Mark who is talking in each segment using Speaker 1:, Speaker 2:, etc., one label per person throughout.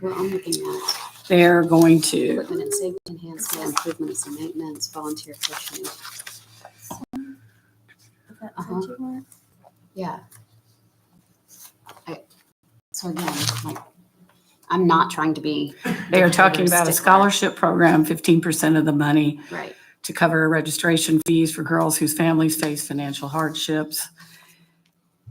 Speaker 1: Well, I'm looking at
Speaker 2: They're going to,
Speaker 1: equipment and safety enhancement, improvements and maintenance, volunteer fishing. Uh-huh. Yeah. I- So again, like, I'm not trying to be.
Speaker 2: they are talking about a
Speaker 1: stickler.
Speaker 2: scholarship program, fifteen percent of the money
Speaker 1: Right,
Speaker 2: to cover registration fees for girls whose families face financial hardships.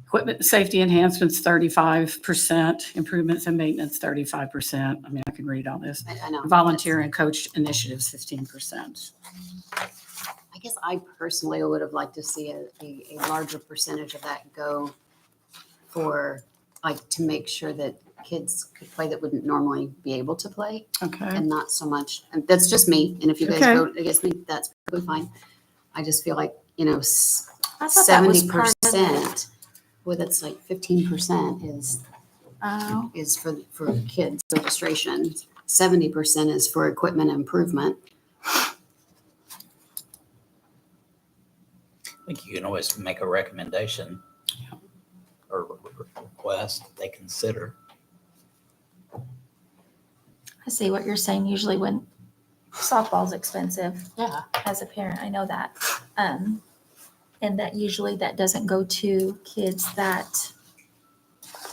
Speaker 2: Equipment and safety enhancements, thirty-five percent, improvements and maintenance, thirty-five percent. I mean, I can read all this.
Speaker 1: I, I know.
Speaker 2: Volunteer and coach initiatives, fifteen percent.
Speaker 1: I guess I personally would have liked to see a, a, a larger percentage of that go for, like, to make sure that kids could play that wouldn't normally be able to play
Speaker 2: Okay,
Speaker 1: and not so much, and that's just me, and if you guys
Speaker 2: Okay.
Speaker 1: vote against me, that's perfectly fine. I just feel like, you know, seventy
Speaker 3: I thought that was part of the-
Speaker 1: percent, well, that's like fifteen percent is
Speaker 3: Oh,
Speaker 1: is for, for kids registration. Seventy percent is for equipment improvement.
Speaker 4: I think you can always make a recommendation or re- re- request that they consider.
Speaker 3: I see what you're saying. Usually when softball's expensive
Speaker 1: Yeah.
Speaker 3: as a parent, I know that. Um, and that usually that doesn't go to kids that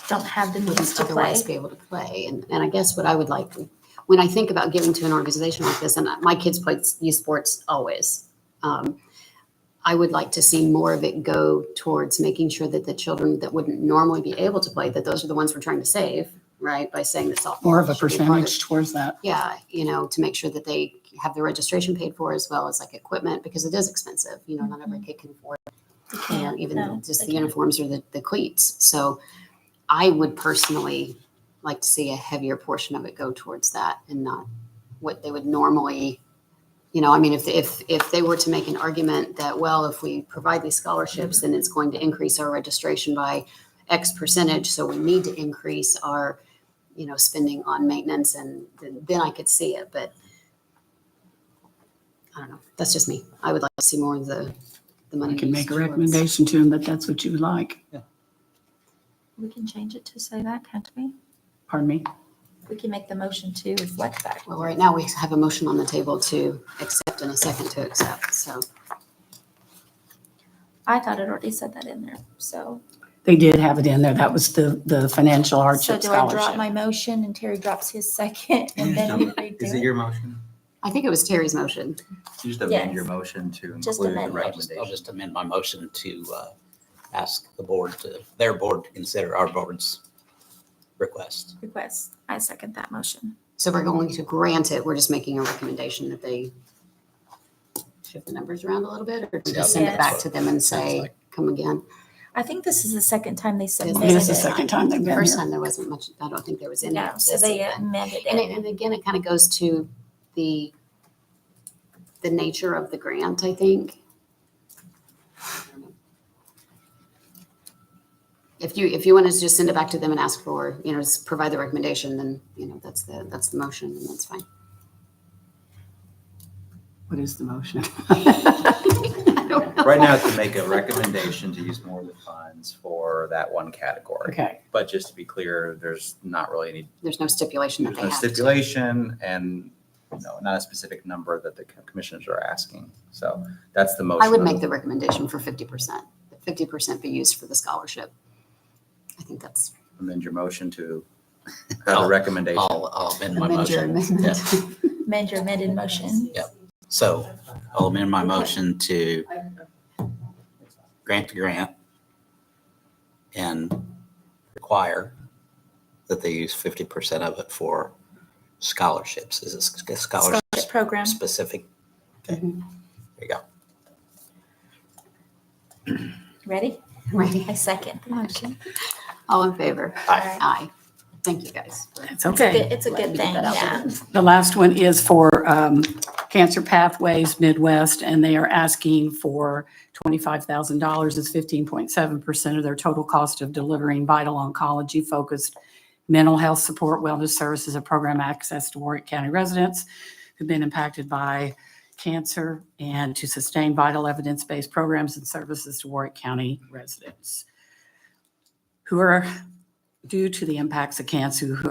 Speaker 3: don't have the means
Speaker 1: Wouldn't
Speaker 3: to play.
Speaker 1: otherwise be able to play. And, and I guess what I would like, when I think about giving to an organization like this, and my kids played youth sports always. um, I would like to see more of it go towards making sure that the children that wouldn't normally be able to play, that those are the ones we're trying to save, right? By saying that softball.
Speaker 2: more of a
Speaker 1: should be part
Speaker 2: percentage towards that.
Speaker 1: yeah, you know, to make sure that they have their registration paid for as well as like equipment because it is expensive. You know, not every kid can afford, you know, even
Speaker 3: no,
Speaker 1: just
Speaker 3: they
Speaker 1: the
Speaker 3: can't.
Speaker 1: uniforms or the, the cleats. So I would personally like to see a heavier portion of it go towards that and not what they would normally, you know, I mean, if, if, if they were to make an argument that, well, if we provide these scholarships, then it's going to increase our registration by X percentage, so we need to increase our you know, spending on maintenance and th- then I could see it, but I don't know. That's just me. I would like to see more of the, the money.
Speaker 2: I can
Speaker 1: used
Speaker 2: make a
Speaker 1: towards-
Speaker 2: recommendation to them that that's what you would like.
Speaker 3: We can change it to say that, can't we?
Speaker 2: Pardon me?
Speaker 3: We can make the motion to reflect that.
Speaker 1: Well, right now we have a motion on the table to accept and a second to accept. So
Speaker 3: I thought it already said that in there, so.
Speaker 2: They did have it in there. That was the, the financial hardship
Speaker 3: So do I drop
Speaker 2: scholarship.
Speaker 3: my motion and Terry drops his second and then we
Speaker 5: Is it
Speaker 3: redo it?
Speaker 5: your motion?
Speaker 1: I think it was Terry's motion.
Speaker 5: You Just amend
Speaker 3: Yes.
Speaker 5: your motion to
Speaker 3: Just
Speaker 5: include the
Speaker 3: amend it.
Speaker 4: I'll just- I'll
Speaker 5: recommendation.
Speaker 4: just amend my motion to uh, ask the board to, their board to consider our board's request.
Speaker 3: Request. I second that motion.
Speaker 1: So we're going to grant it. We're just making a recommendation that they shift the numbers around a little bit or
Speaker 4: Yeah,
Speaker 1: just send it
Speaker 3: that's
Speaker 1: back
Speaker 4: what
Speaker 1: to them and say,
Speaker 4: like.
Speaker 1: come again.
Speaker 3: I think this is the second time they
Speaker 1: It is
Speaker 3: submitted
Speaker 2: It is the
Speaker 3: it.
Speaker 2: second time they've
Speaker 1: The
Speaker 2: been
Speaker 1: first
Speaker 2: here.
Speaker 1: time there wasn't much, I don't think there was any.
Speaker 3: No,
Speaker 1: of
Speaker 3: so
Speaker 1: this
Speaker 3: they
Speaker 1: even.
Speaker 3: amended
Speaker 1: And,
Speaker 3: it.
Speaker 1: uh, it- and again, it kind of goes to the, the nature of the grant, I think. If you, if you want to just send it back to them and ask for, you know, just provide the recommendation, then, you know, that's the, that's the motion and that's fine.
Speaker 2: What is the motion?
Speaker 1: I don't know.
Speaker 5: Right now, to make a recommendation to use more of the funds for that one category.
Speaker 2: Okay,
Speaker 5: But just to be clear, there's not really any,
Speaker 1: There's no stipulation that
Speaker 5: there's
Speaker 1: they
Speaker 5: no
Speaker 1: have to.
Speaker 5: stipulation and, no, not a specific number that the commissioners are asking. So that's the motion.
Speaker 1: I would make the recommendation for fifty percent, fifty percent be used for the scholarship. I think that's,
Speaker 5: Amend your motion to have a recommendation.
Speaker 4: I'll, I'll amend my
Speaker 1: amend your
Speaker 4: motion. Yeah.
Speaker 1: amendment.
Speaker 3: Amend your amended motion.
Speaker 4: So I'll amend my motion to grant the grant and require that they use fifty percent of it for scholarships. Is it sc- scholarship
Speaker 3: Scholarship program.
Speaker 4: specific? Okay, there you go.
Speaker 3: Ready?
Speaker 1: Right.
Speaker 3: I second the motion.
Speaker 1: All in favor?
Speaker 3: Aye.
Speaker 1: Aye. Thank you, guys. for-
Speaker 2: it's okay.
Speaker 3: It's a
Speaker 1: Let
Speaker 3: good
Speaker 1: me
Speaker 3: thing,
Speaker 1: get that out
Speaker 3: yeah.
Speaker 2: The last one is for um, Cancer Pathways Midwest, and they are asking for $25,000. It's 15.7% of their total cost of delivering vital oncology-focused mental health support, wellness services, and program access to Warwick County residents who've been impacted by cancer and to sustain vital evidence-based programs and services to Warwick County residents who are, due to the impacts of cancer, who